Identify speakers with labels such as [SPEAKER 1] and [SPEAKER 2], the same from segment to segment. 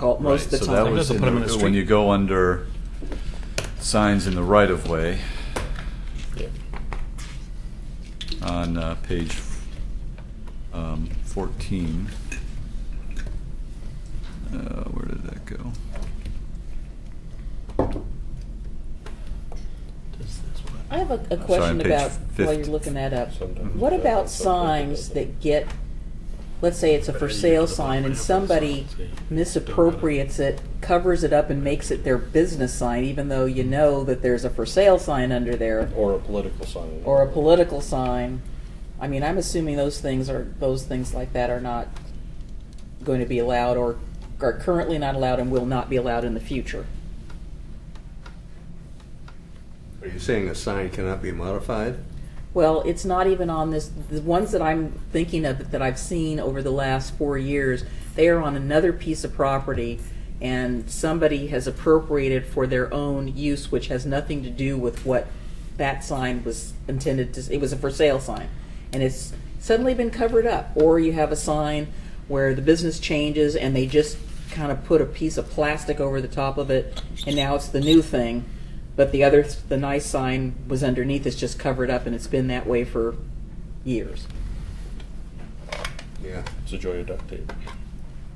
[SPEAKER 1] difficult most of the
[SPEAKER 2] Right, So that
[SPEAKER 1] time.
[SPEAKER 2] was
[SPEAKER 3] They'll
[SPEAKER 2] in
[SPEAKER 3] put 'em in
[SPEAKER 2] the-
[SPEAKER 3] the
[SPEAKER 2] when
[SPEAKER 3] street.
[SPEAKER 2] you go under signs in the right of way on uh, page um, fourteen. Uh, where did that go?
[SPEAKER 1] I have a, a
[SPEAKER 2] on
[SPEAKER 1] question
[SPEAKER 2] page
[SPEAKER 1] about while you're
[SPEAKER 2] 50.
[SPEAKER 1] looking that up.
[SPEAKER 4] Sometimes
[SPEAKER 1] What
[SPEAKER 4] it does,
[SPEAKER 1] about
[SPEAKER 4] sometimes it
[SPEAKER 1] signs that get, let's say it's a for
[SPEAKER 5] Better you
[SPEAKER 1] sale
[SPEAKER 5] put the
[SPEAKER 1] sign and
[SPEAKER 5] pineapple
[SPEAKER 1] somebody
[SPEAKER 5] signs, yeah.
[SPEAKER 1] misappropriates it, covers it up and makes it their business sign, even though you know that there's a for sale sign under there
[SPEAKER 4] Or a political sign.
[SPEAKER 1] or a political sign. I mean, I'm assuming those things are, those things like that are not going to be allowed or are currently not allowed and will not be allowed in the future.
[SPEAKER 6] Are you saying a sign cannot be modified?
[SPEAKER 1] Well, it's not even on this. The ones that I'm thinking of that I've seen over the last four years, they are on another piece of property, and somebody has appropriated for their own use, which has nothing to do with what that sign was intended to. It was a for sale sign, and it's suddenly been covered up. Or you have a sign where the business changes, and they just kind of put a piece of plastic over the top of it, and now it's the new thing. But the other, the nice sign was underneath, it's just covered up, and it's been that way for years.
[SPEAKER 6] Yeah.
[SPEAKER 4] It's a joy of duct tape.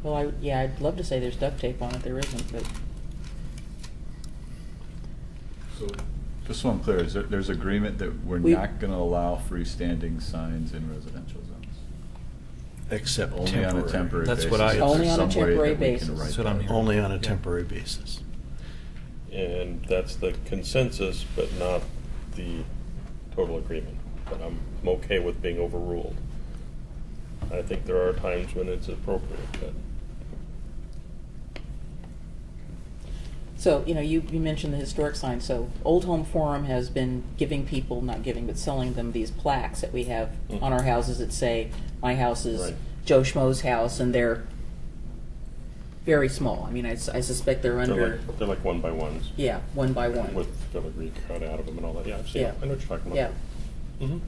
[SPEAKER 1] Well, I, yeah, I'd love to say there's duct tape on it, there isn't, but.
[SPEAKER 2] Just so I'm clear, is there, there's agreement that we're
[SPEAKER 1] We-
[SPEAKER 2] not gonna allow freestanding signs in residential zones?
[SPEAKER 5] Except
[SPEAKER 2] Only on a temporary
[SPEAKER 5] temporary.
[SPEAKER 2] basis.
[SPEAKER 3] That's what I-
[SPEAKER 2] Is there
[SPEAKER 1] Only on a
[SPEAKER 2] some way
[SPEAKER 1] temporary
[SPEAKER 2] that we can
[SPEAKER 1] basis.
[SPEAKER 2] write
[SPEAKER 3] That's what
[SPEAKER 2] that
[SPEAKER 3] I'm
[SPEAKER 2] in?
[SPEAKER 3] hearing.
[SPEAKER 5] Only on a
[SPEAKER 3] Yeah.
[SPEAKER 5] temporary basis.
[SPEAKER 4] And that's the consensus, but not the total agreement. But I'm, I'm okay with being overruled. I think there are times when it's appropriate, but
[SPEAKER 1] So, you know, you, you mentioned the historic sign, so Old Home Forum has been giving people, not giving, but selling them these plaques that we have on
[SPEAKER 7] Mm-hmm.
[SPEAKER 1] our houses that say, my house is
[SPEAKER 4] Right.
[SPEAKER 1] Joe Schmo's house, and they're very small, I mean, I, s- I suspect they're
[SPEAKER 4] they're
[SPEAKER 1] under,
[SPEAKER 4] like, they're like one by ones
[SPEAKER 1] yeah, one by one,
[SPEAKER 4] with filigree cut out of them and all that. Yeah, I've seen
[SPEAKER 1] Yeah.
[SPEAKER 4] it. I know what you're talking about.
[SPEAKER 1] yeah.
[SPEAKER 7] Mm-hmm.
[SPEAKER 4] Mhm.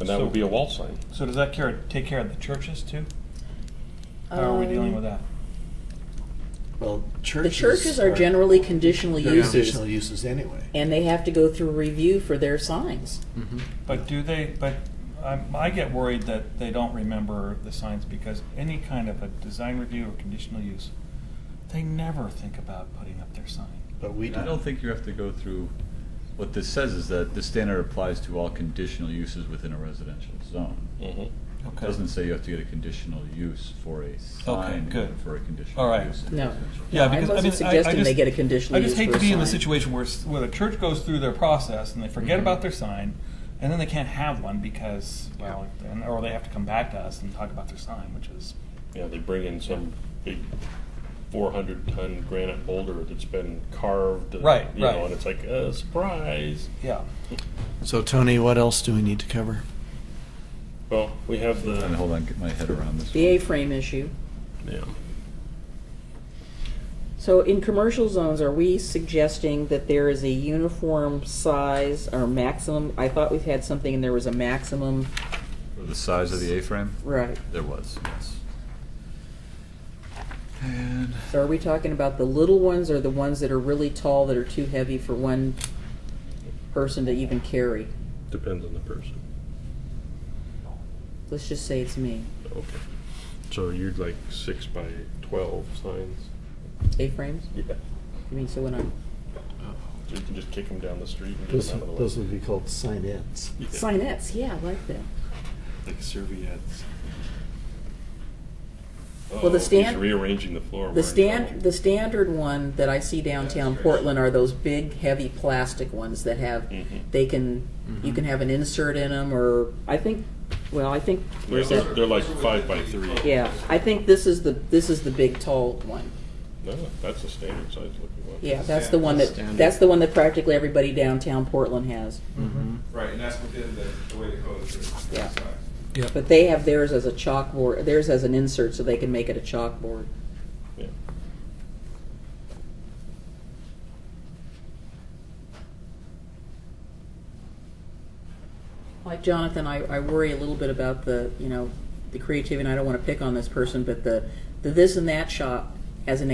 [SPEAKER 4] And that would be a wall sign.
[SPEAKER 7] So does that care, take care of the churches too? How are we
[SPEAKER 1] Um,
[SPEAKER 7] dealing with that?
[SPEAKER 5] Well,
[SPEAKER 1] The
[SPEAKER 5] churches.
[SPEAKER 1] churches are generally conditional
[SPEAKER 5] they're
[SPEAKER 1] uses,
[SPEAKER 5] Conditional uses anyway.
[SPEAKER 1] and they have to go through review for their signs.
[SPEAKER 7] But do they, but I'm- I get worried that they don't remember the signs because any kind of a design review or conditional use, they never think about putting up their sign.
[SPEAKER 5] But we do.
[SPEAKER 2] I don't think you have to go through, what this says is that this standard applies to all conditional uses within a residential zone.
[SPEAKER 4] Mm-hmm.
[SPEAKER 2] It Doesn't say you have to get a conditional use for a sign,
[SPEAKER 7] good.
[SPEAKER 2] even for a
[SPEAKER 7] All
[SPEAKER 2] conditional
[SPEAKER 7] right.
[SPEAKER 2] use. in
[SPEAKER 1] No.
[SPEAKER 2] residential.
[SPEAKER 1] Yeah,
[SPEAKER 7] Yeah,
[SPEAKER 1] I
[SPEAKER 7] because I
[SPEAKER 1] wasn't
[SPEAKER 7] mean,
[SPEAKER 1] suggesting
[SPEAKER 7] I, I just,
[SPEAKER 1] they get a conditional
[SPEAKER 7] I just
[SPEAKER 1] use
[SPEAKER 7] hate
[SPEAKER 1] for
[SPEAKER 7] to
[SPEAKER 1] a
[SPEAKER 7] be in the
[SPEAKER 1] sign.
[SPEAKER 7] situation where s- where the church goes through their process and they forget about their sign, and then they can't have one because well, and, or they have to come back to us and talk about their sign, which is
[SPEAKER 4] Yeah, they bring in some big four hundred ton granite boulder that's been carved. and,
[SPEAKER 7] Right,
[SPEAKER 4] you
[SPEAKER 7] right.
[SPEAKER 4] Know, and it's like uh, surprise.
[SPEAKER 7] yeah.
[SPEAKER 5] So Tony, what else do we need to cover?
[SPEAKER 4] Well, we have the
[SPEAKER 2] And hold on, get my head around this.
[SPEAKER 1] The
[SPEAKER 2] one.
[SPEAKER 1] A-frame issue.
[SPEAKER 4] yeah.
[SPEAKER 1] So in commercial zones, are we suggesting that there is a uniform size or maximum? I thought we've had something and there was a maximum.
[SPEAKER 2] For The size of the A-frame?
[SPEAKER 1] Right.
[SPEAKER 2] There was, yes. And
[SPEAKER 1] So are we talking about the little ones or the ones that are really tall that are too heavy for one person to even carry?
[SPEAKER 4] Depends on the person.
[SPEAKER 1] Let's just say it's me.
[SPEAKER 4] Okay. So you'd like six by twelve signs?
[SPEAKER 1] A-frames?
[SPEAKER 4] Yeah.
[SPEAKER 1] I mean, so when I'm,
[SPEAKER 4] So you can just kick them down the street and get
[SPEAKER 5] Those,
[SPEAKER 4] them out of the way.
[SPEAKER 5] those would be called signettes.
[SPEAKER 4] Yeah.
[SPEAKER 1] signettes, yeah, I like that.
[SPEAKER 4] Like serviettes. Oh,
[SPEAKER 1] the
[SPEAKER 4] Uh-oh,
[SPEAKER 1] stand-
[SPEAKER 4] He's rearranging the floor. We're
[SPEAKER 1] The
[SPEAKER 4] in
[SPEAKER 1] stand,
[SPEAKER 4] trouble.
[SPEAKER 1] the standard one that I see downtown
[SPEAKER 4] right.
[SPEAKER 1] Portland are those big, heavy plastic ones that have,
[SPEAKER 4] Mhm.
[SPEAKER 1] they can, you can have an insert in them or, I think, well, I think.
[SPEAKER 4] They're,
[SPEAKER 1] is that-
[SPEAKER 4] they're like five by three.
[SPEAKER 1] Yeah, I think this is the, this is the big tall one.
[SPEAKER 4] No, Oh, that's a standard size looking one.
[SPEAKER 1] Yeah, that's the one that, that's the one that practically everybody downtown Portland has.
[SPEAKER 5] Mm-hmm.
[SPEAKER 8] Right, and that's within the, the way the code is written.
[SPEAKER 1] Yeah.
[SPEAKER 8] Sorry.
[SPEAKER 1] But they have theirs as a chalkboard, theirs as an insert, so they can make it a chalkboard.
[SPEAKER 4] Yeah.
[SPEAKER 1] Like Jonathan, I, I worry a little bit about the, you know, the creativity, and I don't want to pick on this person, but the, the this and that shop has an